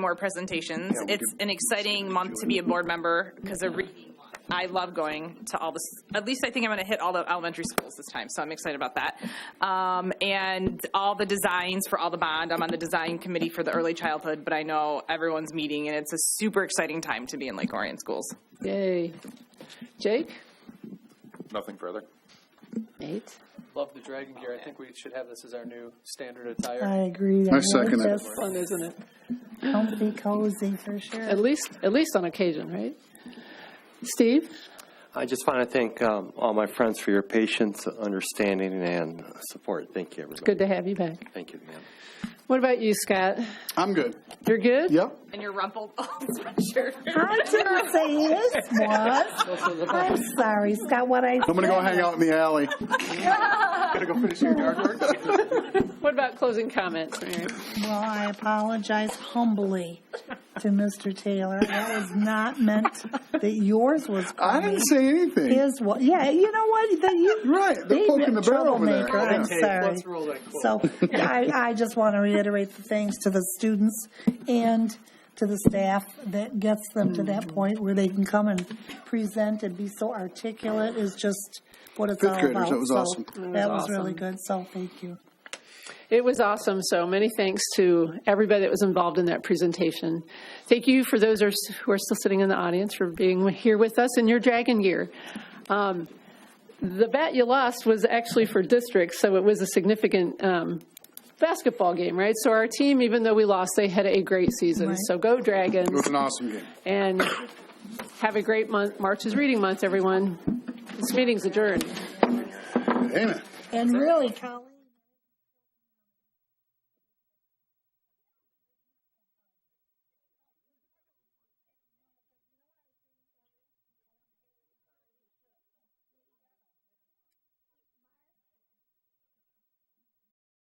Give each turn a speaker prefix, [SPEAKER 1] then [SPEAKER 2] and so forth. [SPEAKER 1] more presentations. It's an exciting month to be a board member because I love going to all this, at least I think I'm going to hit all the elementary schools this time, so I'm excited about that. Um, And all the designs for all the bond, I'm on the design committee for the early childhood, but I know everyone's meeting and it's a super exciting time to be in Lake Orion schools.
[SPEAKER 2] Yay. Jake?
[SPEAKER 3] Nothing further.
[SPEAKER 2] Nate?
[SPEAKER 4] Love the dragon gear. I think we should have this as our new standard attire.
[SPEAKER 5] I agree.
[SPEAKER 3] I second it.
[SPEAKER 2] Fun, isn't it?
[SPEAKER 5] Comfy, cozy, for sure.
[SPEAKER 2] At least, at least on occasion, right? Steve?
[SPEAKER 6] I just want to thank um, all my friends for your patience, understanding, and support. Thank you, everybody.
[SPEAKER 2] Good to have you back.
[SPEAKER 6] Thank you, ma'am.
[SPEAKER 2] What about you, Scott?
[SPEAKER 3] I'm good.
[SPEAKER 2] You're good?
[SPEAKER 3] Yep.
[SPEAKER 1] And your rumpled old sweatshirt.
[SPEAKER 5] I didn't say his was. I'm sorry, Scott, what I.
[SPEAKER 3] I'm gonna go hang out in the alley. Gotta go finish your yard work.
[SPEAKER 2] What about closing comments, Mary?
[SPEAKER 5] Well, I apologize humbly to Mr. Taylor. That was not meant that yours was
[SPEAKER 3] I
[SPEAKER 5] crummy.
[SPEAKER 3] didn't say anything.
[SPEAKER 5] His was, yeah, you know what, then you.
[SPEAKER 3] Right, they're
[SPEAKER 5] They-
[SPEAKER 3] poking the bear over there.
[SPEAKER 5] troublemaker, I'm
[SPEAKER 4] Hey,
[SPEAKER 5] sorry.
[SPEAKER 4] let's roll that quote.
[SPEAKER 5] So I, I just want to reiterate the thanks to the students and to the staff that gets them to
[SPEAKER 3] Mm-hmm.
[SPEAKER 5] that point where they can come and present and be so articulate is just what it's
[SPEAKER 3] Fifth
[SPEAKER 5] all about.
[SPEAKER 3] graders, that was
[SPEAKER 5] So
[SPEAKER 3] awesome.
[SPEAKER 5] That was really good, so thank you.
[SPEAKER 2] It was awesome, so many thanks to everybody that was involved in that presentation. Thank you for those are- who are still sitting in the audience for being here with us in your dragon gear. Um, The bet you lost was actually for districts, so it was a significant um, basketball game, right? So our team, even though we lost, they had a great season.
[SPEAKER 5] Right.
[SPEAKER 2] So go
[SPEAKER 3] It
[SPEAKER 2] Dragons,
[SPEAKER 3] was an awesome game.
[SPEAKER 2] and have a great month. March is reading month, everyone. This meeting's adjourned.
[SPEAKER 3] Amen.
[SPEAKER 5] And really, Colin.